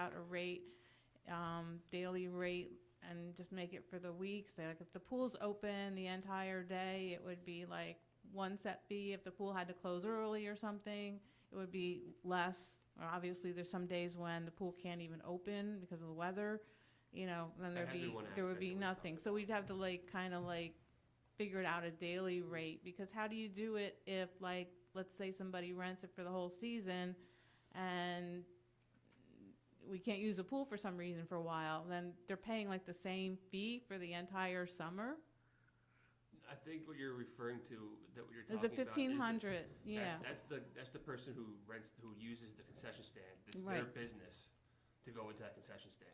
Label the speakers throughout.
Speaker 1: out a rate, um, daily rate, and just make it for the week. So like if the pool's open the entire day, it would be like one set fee. If the pool had to close early or something, it would be less. Or obviously, there's some days when the pool can't even open because of the weather, you know, then
Speaker 2: That
Speaker 1: there'd
Speaker 2: has to be
Speaker 1: be,
Speaker 2: one
Speaker 1: there would
Speaker 2: aspect
Speaker 1: be
Speaker 2: that we've talked
Speaker 1: nothing. So we'd have to like, kind of like figure it out a daily rate because how do you do it if like, let's say somebody rents it for the whole season and we can't use the pool for some reason for a while, then they're paying like the same fee for the entire summer?
Speaker 2: I think what you're referring to, that what you're
Speaker 1: Is
Speaker 2: talking
Speaker 1: the
Speaker 2: about.
Speaker 1: fifteen
Speaker 2: is the-
Speaker 1: hundred, yeah.
Speaker 2: That's, that's the, that's the person who rents, who uses the concession stand. It's their
Speaker 1: Right.
Speaker 2: business to go into that concession stand.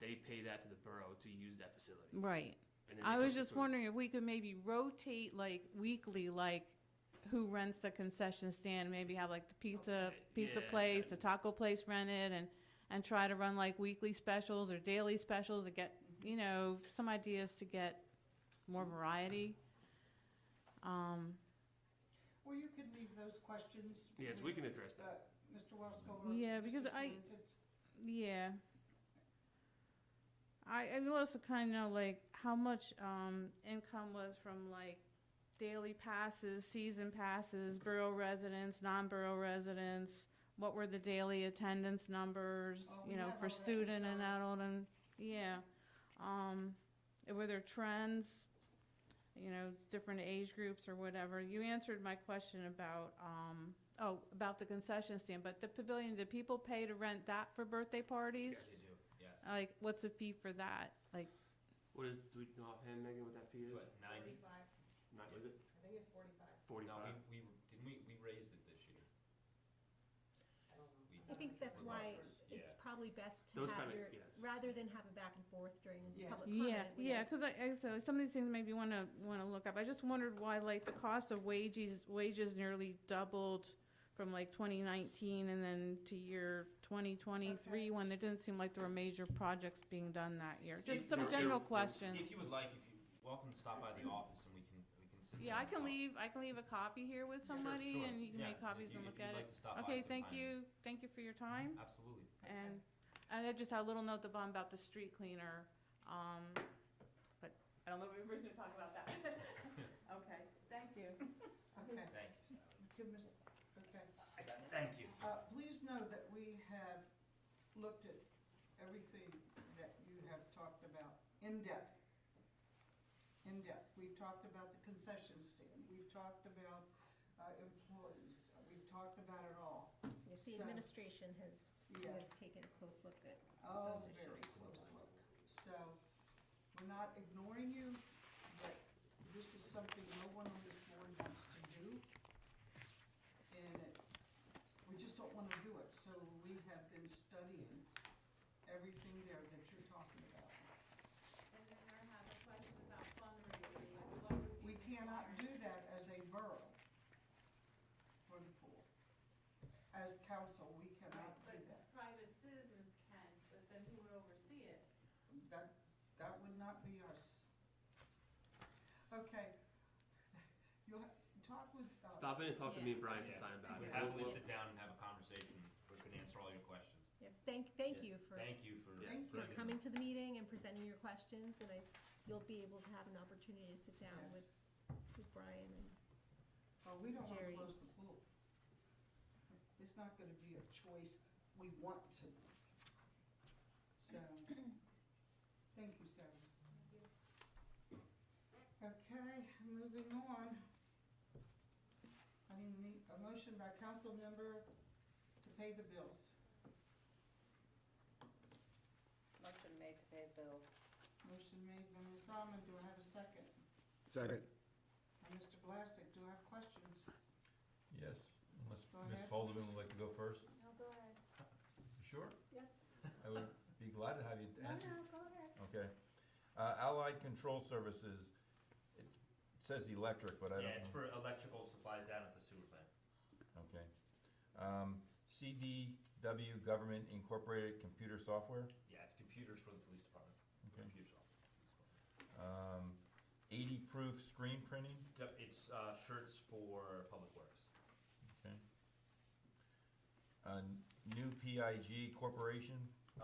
Speaker 2: They pay that to the borough to use that facility.
Speaker 1: Right.
Speaker 2: and then
Speaker 1: I
Speaker 2: they
Speaker 1: was
Speaker 2: come
Speaker 1: just
Speaker 2: to-
Speaker 1: wondering if we could maybe rotate like weekly, like who rents the concession stand, maybe have like the pizza,
Speaker 2: Okay,
Speaker 1: pizza
Speaker 2: yeah,
Speaker 1: place, the
Speaker 2: and-
Speaker 1: taco place rented and, and try to run like weekly specials or daily specials to get, you know, some ideas to get more variety. Um,
Speaker 3: Well, you could leave those questions.
Speaker 2: Yes, we can address
Speaker 3: uh,
Speaker 2: that.
Speaker 3: Mr. Wesco or.
Speaker 1: Yeah, because
Speaker 3: Mr.
Speaker 1: I-
Speaker 3: Sorensen.
Speaker 1: Yeah. I, I would also kind of know like how much um, income was from like daily passes, season passes, borough residents, non-borough residents. What were the daily attendance numbers?
Speaker 3: Oh,
Speaker 1: you
Speaker 3: we
Speaker 1: know,
Speaker 3: have all
Speaker 1: for
Speaker 3: that
Speaker 1: student and
Speaker 3: stuff.
Speaker 1: adult, and yeah, um, and were there trends? You know, different age groups or whatever. You answered my question about um, oh about the concession stand, but the pavilion. Did people pay to rent that for birthday parties?
Speaker 4: Yes, they do, yes.
Speaker 1: Like, what's the fee for that? Like,
Speaker 2: What is, do we know offhand, Megan, what that fee is?
Speaker 4: It's what, ninety?
Speaker 2: Not, is it
Speaker 5: I think it's forty-five.
Speaker 4: No,
Speaker 2: forty-five?
Speaker 4: we, we, didn't we, we raised it this year.
Speaker 5: I don't know.
Speaker 4: We-
Speaker 6: I think that's
Speaker 4: we're
Speaker 6: why
Speaker 4: offering-
Speaker 6: it's
Speaker 4: Yeah.
Speaker 6: probably best to
Speaker 2: Those
Speaker 6: have
Speaker 2: kinda-
Speaker 6: your,
Speaker 2: yes.
Speaker 6: rather than have a back and forth during
Speaker 3: Yes.
Speaker 6: public comment.
Speaker 1: yeah,
Speaker 6: we
Speaker 1: yeah,
Speaker 6: just-
Speaker 1: because I, I said, like, some of these things maybe want to, want to look up. I just wondered why, like, the cost of wages, wages nearly doubled from like twenty nineteen and then to year twenty twenty-three, when there didn't seem like there were major projects being done that year. Just
Speaker 4: If
Speaker 1: some
Speaker 4: there- there-
Speaker 1: general questions.
Speaker 4: If you would like, if you, welcome to stop by the office and we can, we can sit down.
Speaker 1: Yeah, I
Speaker 4: and
Speaker 1: can
Speaker 4: talk.
Speaker 1: leave, I can leave a copy here with
Speaker 4: Sure,
Speaker 1: somebody
Speaker 4: sure.
Speaker 1: and you can
Speaker 4: Yeah,
Speaker 1: make
Speaker 4: if
Speaker 1: copies
Speaker 4: you-
Speaker 1: and
Speaker 4: if
Speaker 1: look
Speaker 4: you'd
Speaker 1: at
Speaker 4: like
Speaker 1: it.
Speaker 4: to stop by
Speaker 1: Okay, thank you,
Speaker 4: sometime.
Speaker 1: thank you for your time.
Speaker 4: Absolutely.
Speaker 1: And, and I just had a little note at the bottom about the street cleaner, um, but I don't know if we're gonna talk about that. Okay, thank you.
Speaker 3: Okay,
Speaker 4: Thank you, Sally.
Speaker 3: to Ms., okay.
Speaker 4: I got it. Thank you.
Speaker 3: Uh, Please know that we have looked at everything that you have talked about in depth. In depth. We've talked about the concession stand. We've talked about uh, employees. We've talked about it all.
Speaker 6: Yes, the
Speaker 3: So-
Speaker 6: administration has,
Speaker 3: Yeah.
Speaker 6: has taken a close look at
Speaker 3: Oh,
Speaker 6: Those
Speaker 3: very
Speaker 6: issues.
Speaker 3: close look. So, we're not ignoring you, but this is something no one on this board wants to do. And it- we just don't wanna do it, so we have been studying everything there that you're talking about.
Speaker 7: And then I have a question about fundraising, what would be
Speaker 3: We cannot do that as a borough for the pool. As council, we cannot do
Speaker 7: But
Speaker 3: that.
Speaker 7: private citizens can, but then who would oversee it?
Speaker 3: That, that would not be us. Okay. You'll ha- talk with, uh,
Speaker 2: Stop in and talk to
Speaker 7: Yeah.
Speaker 2: me and Brian
Speaker 4: Yeah.
Speaker 2: sometime about
Speaker 4: We
Speaker 2: it.
Speaker 4: happily
Speaker 2: We'll-
Speaker 4: sit down and have a conversation. We can answer all your questions.
Speaker 6: Yes, thank, thank
Speaker 4: Yes.
Speaker 6: you for,
Speaker 4: Thank you for.
Speaker 2: Yes.
Speaker 3: Thank
Speaker 6: for
Speaker 4: bringing-
Speaker 6: coming to the meeting and presenting your questions, and I, you'll be able to have an opportunity to sit down
Speaker 3: Yes.
Speaker 6: with, with Brian and
Speaker 3: oh, we don't wanna
Speaker 6: Jerry.
Speaker 3: close the pool. It's not gonna be a choice, we want to. So, thank you, Sarah. Okay, moving on. I need a motion by council member to pay the bills.
Speaker 5: Motion made to pay the bills.
Speaker 3: Motion made by Ms. Almond, do I have a second?
Speaker 8: Second.
Speaker 3: And Mr. Glassick, do I have questions?
Speaker 9: Yes, unless
Speaker 3: Go
Speaker 9: Ms.
Speaker 3: ahead.
Speaker 9: Holdeman would like to go first.
Speaker 5: No, go ahead.
Speaker 9: You Sure?
Speaker 5: Yeah.
Speaker 9: I would be glad to have you answer.
Speaker 5: Oh, go ahead.
Speaker 9: Okay. Uh, Allied Control Services, it says electric, but I don't know.
Speaker 4: Yeah, it's for electrical supplies down at the sewer plant.
Speaker 9: Okay. Um, CDW Government Incorporated Computer Software,
Speaker 4: Yeah, it's computers for the police department.
Speaker 9: Okay.
Speaker 4: Computers for the police department.
Speaker 9: um, eighty proof screen printing,
Speaker 4: Yep, it's, uh, shirts for public works.
Speaker 9: uh, New PIG Corporation,